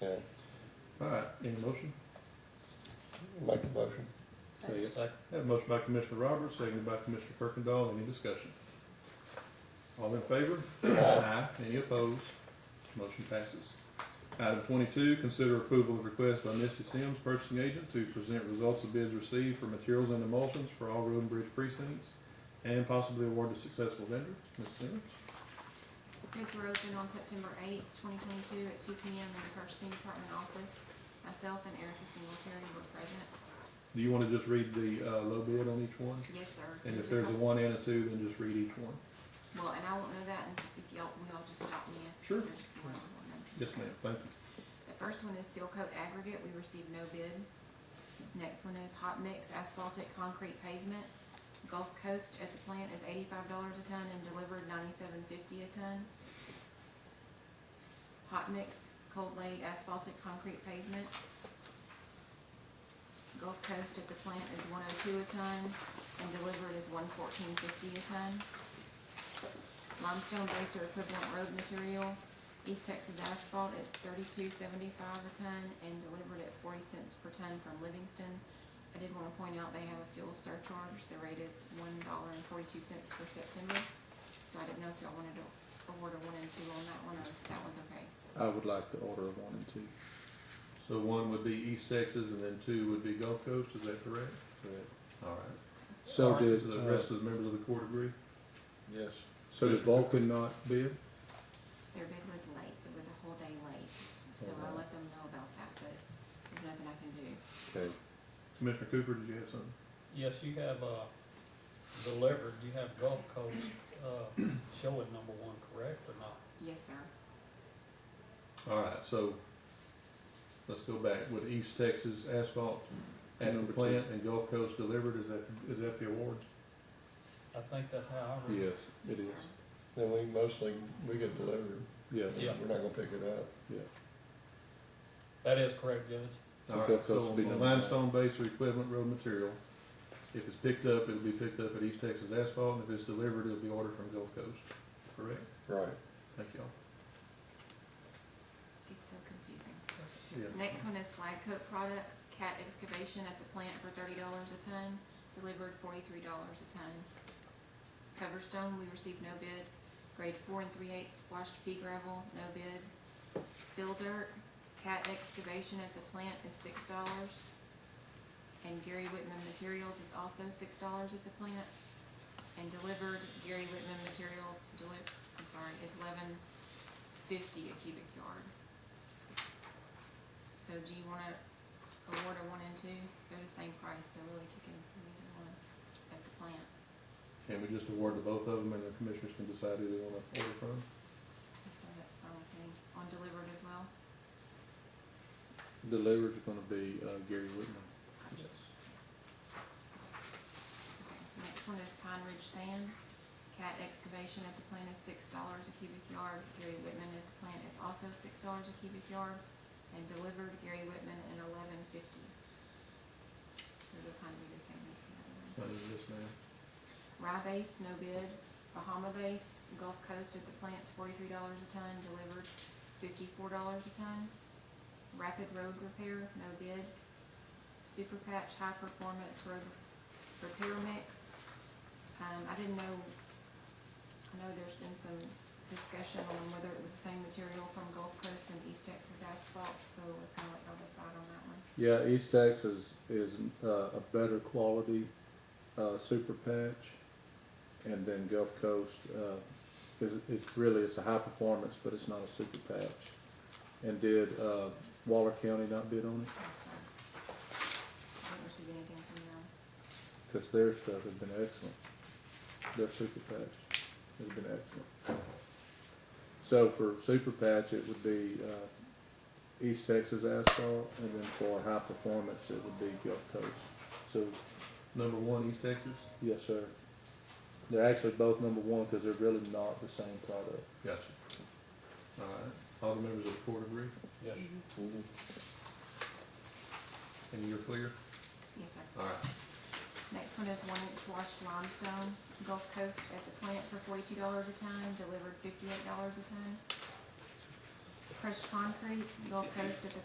Okay, All right, any motion? make the motion. Second. Have a motion by Commissioner Roberts, seconded by Commissioner Kirkendall, any discussion? All in favor? Aye. Any opposed? Motion passes. Item twenty-two, consider approval of request by Misty Sims, purchasing agent, to present results of bids received for materials and emulsions for all road and bridge precincts, and possibly award a successful vendor. Ms. Sims? Bids were opened on September eighth, twenty twenty-two at two P M in the purchasing department office. Myself and Erica Singletary were present. Do you want to just read the, uh, low bid on each one? Yes, sir. And if There there's was a couple- one and a two, then just read each one. Well, and I won't know that until- if y'all, we all just stop me if. Sure. there's more than one number. Yes, ma'am, thank you. The first one is seal coat aggregate, we received no bid. Next one is hot mix asphaltic concrete pavement. Gulf Coast at the plant is eighty-five dollars a ton and delivered ninety-seven fifty a ton. Hot mix cold laid asphaltic concrete pavement. Gulf Coast at the plant is one oh two a ton and delivered is one fourteen fifty a ton. Limestone base or equivalent road material, East Texas Asphalt at thirty-two seventy-five a ton and delivered at forty cents per ton from Livingston. I did wanna point out they have a fuel surcharge, the rate is one dollar and forty-two cents for September. So I didn't know if y'all wanted to award a one and two on that one, or if that one's okay. I would like the order of one and two. So one would be East Texas and then two would be Gulf Coast, is that correct? Correct. Alright. So Does does, the uh, rest of the members of the court agree? Yes. so does Vulcan not bid? Their bid was late, it was a whole day late, so Oh, I let them know about that, but there's nothing I can do. Okay, Commissioner Cooper, did you have something? Yes, you have, uh, delivered, you have Gulf Coast, uh, showing number one correct or not? Yes, sir, Alright, so let's go back with East Texas asphalt at the Number two. plant and Gulf Coast delivered, is that, is that the award? I think that's how I read it. Yes, it yes, is. sir. then we mostly, we get delivered, Yes. Yeah. we're not gonna pick it up. That is correct, Judge. So Alright, Gulf so Coast will be on number one. limestone base or equivalent road material, if it's picked up, it'll be picked up at East Texas asphalt, and if it's delivered, it'll be ordered from Gulf Coast, correct? Right, Thank y'all. It's so confusing. Yeah. Next one is Slag Coat Products, cat excavation at the plant for thirty dollars a ton, delivered forty-three dollars a ton. Coverstone, we received no bid. Grade four and three-eighths washed pea gravel, no bid. Fill dirt, cat excavation at the plant is six dollars. And Gary Whitman Materials is also six dollars at the plant. And delivered, Gary Whitman Materials deli, I'm sorry, is eleven fifty a cubic yard. So do you wanna award a one and two? They're the same price, they're really kicking for either one at the plant. Can we just award to both of them and the commissioners can decide who they wanna order from? So that's fine with me. On delivered as well? Delivered's gonna be, uh, Gary Whitman. Yes. Okay. Next one is Pine Ridge Sand. Cat excavation at the plant is six dollars a cubic yard. Gary Whitman at the plant is also six dollars a cubic yard. And delivered Gary Whitman at eleven fifty. So they'll kind of be the same as the other one. Sign in this man. Rye base, no bid. Bahama base, Gulf Coast at the plant's forty-three dollars a ton, delivered fifty-four dollars a ton. Rapid road repair, no bid. Super patch high performance road repair mix. Um, I didn't know, I know there's been some discussion on whether it was the same material from Gulf Coast and East Texas asphalt, so I was gonna let y'all decide on that one. Yeah, East Texas is, uh, a better quality, uh, super patch. And then Gulf Coast, uh, is, it's really, it's a high performance, but it's not a super patch. And did, uh, Waller County not bid on I'm it? sorry. I didn't receive anything from them. Cause their stuff has been excellent. Their super patch has been excellent. So for super patch, it would be, uh, East Texas asphalt, and then for high performance, it would be Gulf Coast. So, Number one, East Texas? yes, sir. They're actually both number one, cause they're really not the same product. Gotcha. Alright, all the members of the court agree, Yes. Mhm. and you're clear? Yes, sir. Alright, Next one is one inch washed limestone, Gulf Coast at the plant for forty-two dollars a ton, delivered fifty-eight dollars a ton. crushed concrete, Gulf Coast at the